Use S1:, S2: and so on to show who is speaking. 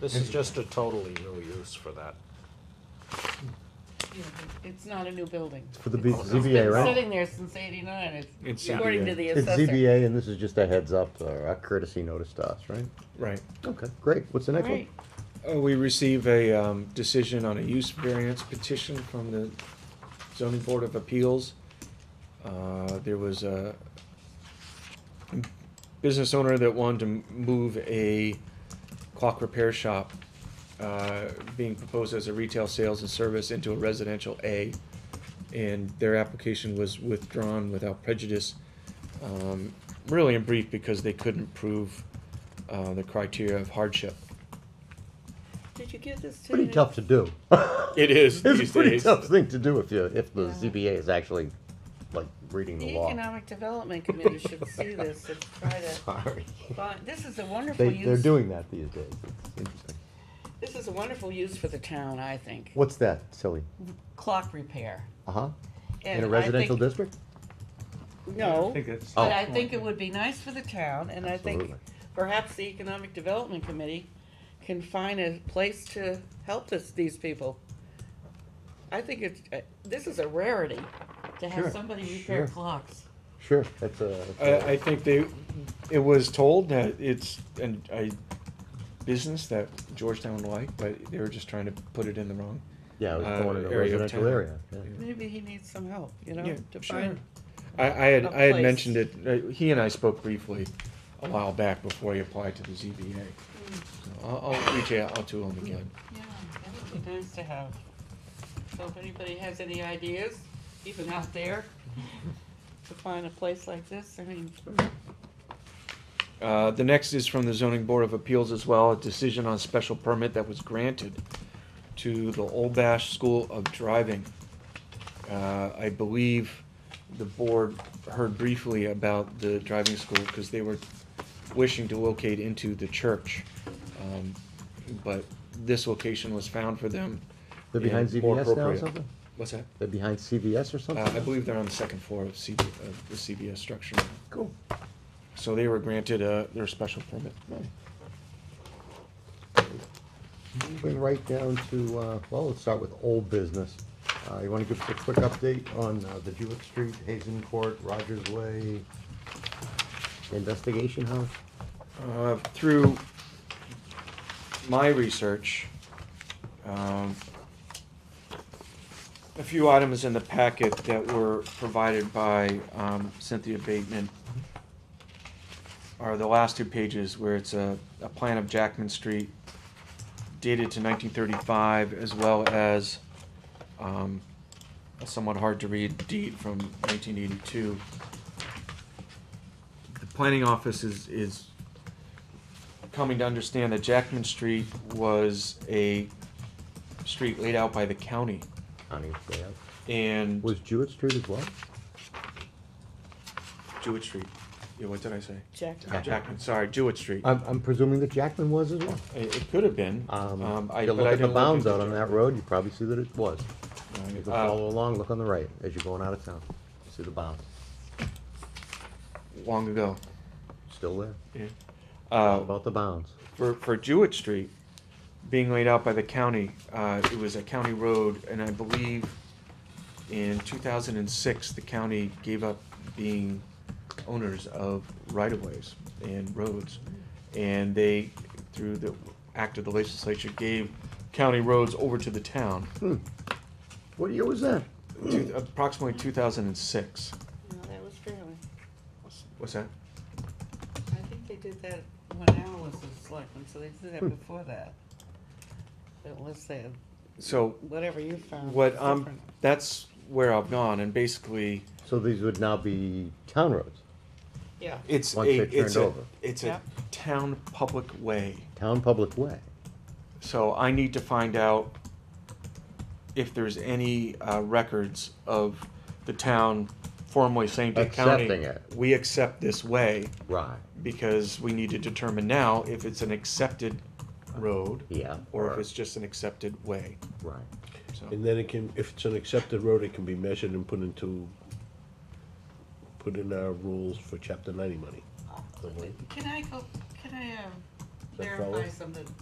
S1: This is just a totally new use for that.
S2: Yeah, but It's not a new building.
S3: For the B-
S2: It's-
S3: ZBA,
S2: It's
S3: right?
S2: been sitting there since eighty-nine,
S4: It's
S2: it's according to
S4: ZBA.
S2: the
S3: It's
S2: assessor.
S3: ZBA, and this is just a heads up, or a courtesy notice to us, right?
S4: Right.
S3: Okay, great, what's the next one?
S2: Right.
S4: Oh, we receive a, um, decision on a use variance petition from the zoning board of appeals. Uh, there was a business owner that wanted to move a clock repair shop, uh, being proposed as a retail sales and service into a residential A. And their application was withdrawn without prejudice, um, really in brief because they couldn't prove, uh, the criteria of hardship.
S2: Did you give this to?
S3: Pretty
S2: the-
S3: tough to do.
S4: It is
S3: It's a
S4: these
S3: pretty
S4: days.
S3: tough thing to do if you, if the
S2: Yeah.
S3: ZBA is actually, like, reading the
S2: The
S3: law.
S2: Economic Development Committee should see this and try to,
S3: Sorry.
S2: find- this is a wonderful
S3: They, they're
S2: use,
S3: doing that these days, it's interesting.
S2: this is a wonderful use for the town, I think.
S3: What's that, silly?
S2: Clock repair.
S3: Uh-huh, in
S2: And
S3: a
S2: I
S3: residential
S2: think-
S3: district?
S2: No,
S4: it's.
S2: but I think it would be nice for the town, and I think
S3: Absolutely.
S2: perhaps the Economic Development Committee can find a place to help this, these people. I think it's, uh, this is a rarity, to
S3: Sure,
S2: have somebody repair
S3: sure.
S2: clocks.
S3: Sure, that's a.
S4: I, I think they, it was told that it's an, a business that Georgetown would like, but they were just trying to put it in the wrong.
S3: Yeah, it was
S4: uh,
S3: going in a
S4: area of
S3: residential
S4: town.
S3: area, yeah.
S2: Maybe he needs some help, you know,
S4: Yeah,
S2: to
S4: sure.
S2: find,
S4: I, I had,
S2: A
S4: I had
S2: place.
S4: mentioned it, uh, he and I spoke briefly a while back before he applied to the ZBA. So I'll, I'll reach out to him again.
S2: yeah, that would be nice to have. So if anybody has any ideas, even out there, to find a place like this, I mean,
S4: Uh, the next is from the zoning board of appeals as well, a decision on special permit that was granted to the Old Bash School of Driving. Uh, I believe the board heard briefly about the driving school because they were wishing to locate into the church. Um, But this location was found for them.
S3: They're behind
S4: and more
S3: ZBS now or
S4: appropriate.
S3: something?
S4: What's that?
S3: They're behind CVS or something?
S4: Uh, I believe they're on the second floor of CB, of the CBS structure.
S3: Cool.
S4: So they were granted, uh, their special permit.
S3: Moving right down to, uh, well, let's start with old business. Uh, You want to give us a quick update on uh, the Jewett Street, Hazen Court, Rogers Way investigation house?
S4: Uh, Through my research, um, a few items in the packet that were provided by um, Cynthia Bateman are the last two pages where it's a, a plan of Jackman Street dated to nineteen thirty-five as well as um, a somewhat hard-to-read deed from nineteen eighty-two. The planning office is, is coming to understand that Jackman Street was a street laid out by the county
S3: County layout.
S4: and
S3: Was Jewett Street as well?
S4: Jewett Street. Yeah, what did I say?
S2: Jack.
S4: Uh, Jackman, sorry, Jewett Street.
S3: I'm, I'm presuming that Jackman was as well.
S4: It, it could have been.
S3: Um,
S4: Um, I-
S3: If you
S4: but I
S3: look at the
S4: didn't
S3: bounds
S4: into
S3: out on that
S4: Jackman.
S3: road, you probably see that it was.
S4: Uh,
S3: You can follow along, look on the right as you're going out of town. See the bounds,
S4: Long ago.
S3: still there,
S4: Uh,
S3: about the bounds.
S4: for, for Jewett Street being laid out by the county, uh, it was a county road, and I believe in two thousand and six, the county gave up being owners of right-of-ways and roads. And they, through the act of the legislature, gave county roads over to the town,
S3: What year was that?
S4: two- approximately two thousand and six.
S2: No, that was fairly,
S4: What's that?
S2: I think they did that when Al was a selectman, so they did
S4: Hmm.
S2: that before that. But let's say,
S4: So
S2: whatever you found.
S4: what,
S2: was
S4: um,
S2: different.
S4: that's where I've gone, and basically,
S3: So these would now be town roads,
S2: Yeah,
S4: It's
S3: Once
S4: a,
S3: they're
S4: it's
S3: turned
S4: a,
S3: over.
S4: it's a
S2: Yep.
S4: town public way.
S3: town public way.
S4: So I need to find out if there's any, uh, records of the town formerly Sainted County.
S3: Accepting it.
S4: We accept this way
S3: Right.
S4: because we need to determine now if it's an accepted road.
S3: Yeah.
S4: Or if it's just an accepted way,
S3: Right.
S4: so.
S5: And then it can, if it's an accepted road, it can be measured and put into, put in our rules for chapter ninety money.
S2: Can I go, can I, um,
S5: Is that follow?
S2: verify something?